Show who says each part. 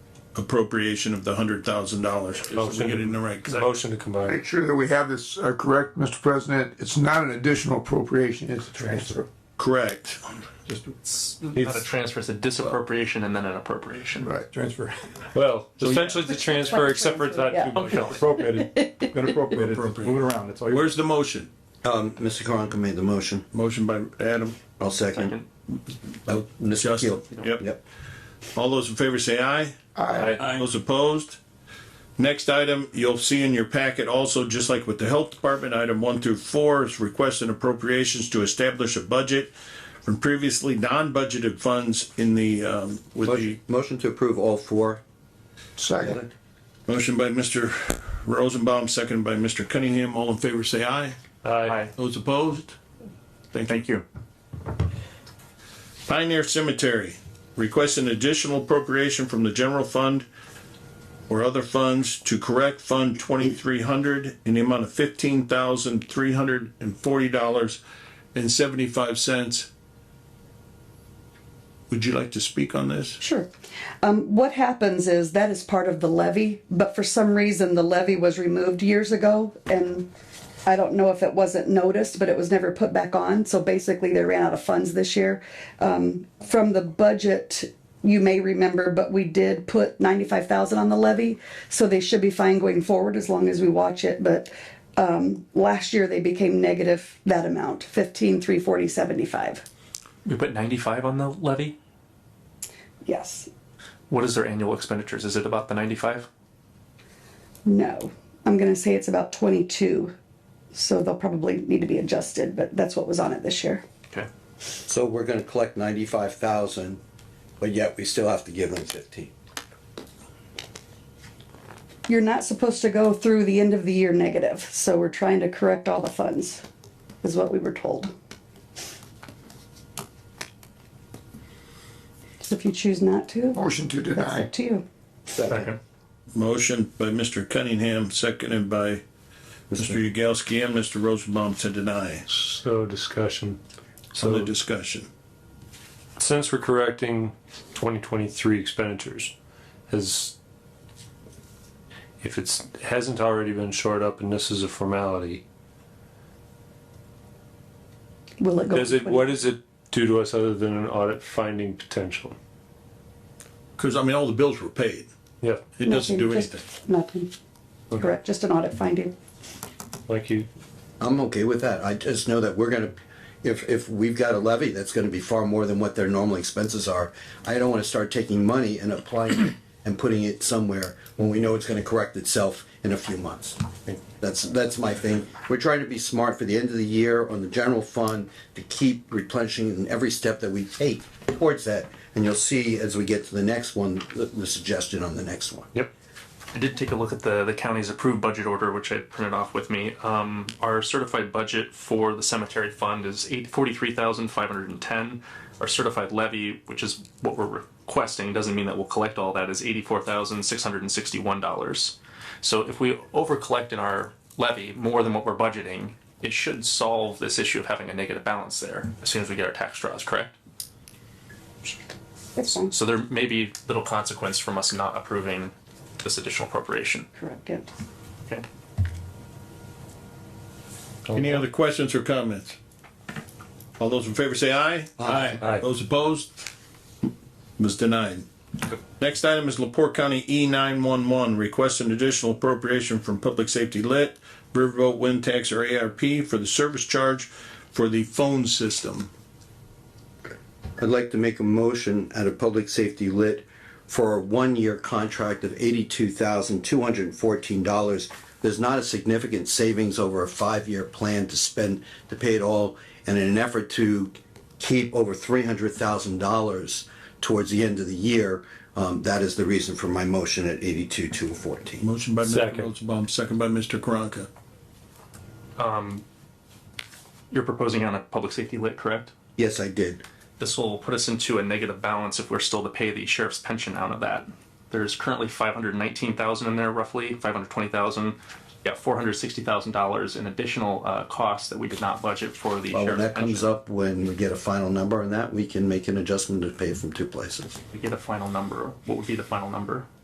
Speaker 1: appropriation of the hundred thousand dollars. Just to get it in the right.
Speaker 2: Motion to combine.
Speaker 3: Make sure that we have this uh, correct, Mr. President. It's not an additional appropriation, it's a transfer.
Speaker 1: Correct.
Speaker 4: Not a transfer, it's a disappropriation and then an appropriation.
Speaker 3: Right.
Speaker 5: transfer,
Speaker 2: Well, essentially the transfer, except for it's not
Speaker 6: Yeah.
Speaker 2: too much.
Speaker 5: appropriated, gonna appropriate it, move it around, that's all you.
Speaker 1: Where's the motion?
Speaker 7: Um, Mr. Karanka made the motion.
Speaker 1: Motion by Adam.
Speaker 7: I'll second.
Speaker 4: Second.
Speaker 7: Oh, Mr.
Speaker 1: Justin.
Speaker 7: Keel.
Speaker 1: Yep.
Speaker 7: Yep.
Speaker 1: All those in favor say aye.
Speaker 2: Aye.
Speaker 1: Those opposed? Next item, you'll see in your packet also, just like with the Health Department, item one through four is requests and appropriations to establish a budget from previously non-budgeted funds in the, um, with the,
Speaker 7: Motion- Motion to approve all four.
Speaker 3: Second.
Speaker 1: motion by Mr. Rosenbaum, seconded by Mr. Cunningham. All in favor, say aye.
Speaker 2: Aye.
Speaker 4: Aye.
Speaker 1: Those opposed?
Speaker 5: Thank you.
Speaker 1: Pioneer Cemetery, requests an additional appropriation from the general fund or other funds to correct Fund twenty-three hundred in the amount of fifteen thousand three hundred and forty dollars and seventy-five cents. Would you like to speak on this?
Speaker 6: Sure. Um, what happens is that is part of the levy, but for some reason the levy was removed years ago and I don't know if it wasn't noticed, but it was never put back on. So basically they ran out of funds this year. Um, from the budget, you may remember, but we did put ninety-five thousand on the levy. So they should be fine going forward as long as we watch it, but, um, last year they became negative that amount, fifteen, three forty, seventy-five.
Speaker 4: We put ninety-five on the levy?
Speaker 6: Yes.
Speaker 4: What is their annual expenditures? Is it about the ninety-five?
Speaker 6: No, I'm gonna say it's about twenty-two, so they'll probably need to be adjusted, but that's what was on it this year.
Speaker 4: Okay.
Speaker 7: So we're gonna collect ninety-five thousand, but yet we still have to give them fifteen.
Speaker 6: You're not supposed to go through the end of the year negative, so we're trying to correct all the funds, is what we were told. So if you choose not to,
Speaker 3: Motion to
Speaker 6: that's
Speaker 3: deny.
Speaker 6: up to you.
Speaker 7: Second.
Speaker 1: Motion by Mr. Cunningham, seconded by Mr. Yagowski and Mr. Rosenbaum to deny.
Speaker 2: So discussion.
Speaker 1: Some of the discussion.
Speaker 2: Since we're correcting twenty twenty-three expenditures, has, if it's, hasn't already been shored up and this is a formality,
Speaker 6: Will it go?
Speaker 2: does
Speaker 6: to
Speaker 2: it,
Speaker 6: 20?
Speaker 2: what does it do to us other than an audit finding potential?
Speaker 1: Cause I mean, all the bills were paid.
Speaker 2: Yeah,
Speaker 1: It doesn't do
Speaker 6: Nothing, just
Speaker 1: anything.
Speaker 6: Nothing. Correct, just an audit finding.
Speaker 2: like you,
Speaker 7: I'm okay with that. I just know that we're gonna, if, if we've got a levy, that's gonna be far more than what their normal expenses are. I don't wanna start taking money and applying it and putting it somewhere when we know it's gonna correct itself in a few months. That's, that's my thing. We're trying to be smart for the end of the year on the general fund to keep replenishing in every step that we take towards that. And you'll see as we get to the next one, the, the suggestion on the next one.
Speaker 2: yep.
Speaker 4: I did take a look at the, the county's approved budget order, which I printed off with me. Um, our certified budget for the cemetery fund is eight, forty-three thousand five hundred and ten. Our certified levy, which is what we're requesting, doesn't mean that we'll collect all that, is eighty-four thousand six hundred and sixty-one dollars. So if we over-collect in our levy more than what we're budgeting, it should solve this issue of having a negative balance there as soon as we get our tax draws, correct?
Speaker 6: That's fine,
Speaker 4: So there may be little consequence from us not approving this additional appropriation.
Speaker 6: correct it.
Speaker 4: Okay.
Speaker 1: Any other questions or comments? All those in favor say aye.
Speaker 2: Aye.
Speaker 1: Those opposed? Was denied. Next item is Lepore County E nine one one, request an additional appropriation from Public Safety Lit, Riverboat Wind Tax or ARP for the service charge for the phone system.
Speaker 7: I'd like to make a motion at a public safety lit for a one-year contract of eighty-two thousand, two hundred and fourteen dollars. There's not a significant savings over a five-year plan to spend, to pay it all, and in an effort to keep over three hundred thousand dollars towards the end of the year, um, that is the reason for my motion at eighty-two, two fourteen.
Speaker 1: Motion by Mr.
Speaker 2: Second.
Speaker 1: Rosenbaum, second by Mr. Karanka.
Speaker 4: You're proposing on a public safety lit, correct?
Speaker 7: Yes, I did.
Speaker 4: This will put us into a negative balance if we're still to pay the sheriff's pension out of that. There's currently five hundred nineteen thousand in there roughly, five hundred twenty thousand. Yeah, four hundred sixty thousand dollars in additional uh costs that we did not budget for the
Speaker 7: Well, when
Speaker 4: sheriff's
Speaker 7: that comes
Speaker 4: pension.
Speaker 7: up, when we get a final number on that, we can make an adjustment to pay it from two places.
Speaker 4: We get a final number. What would be the final number?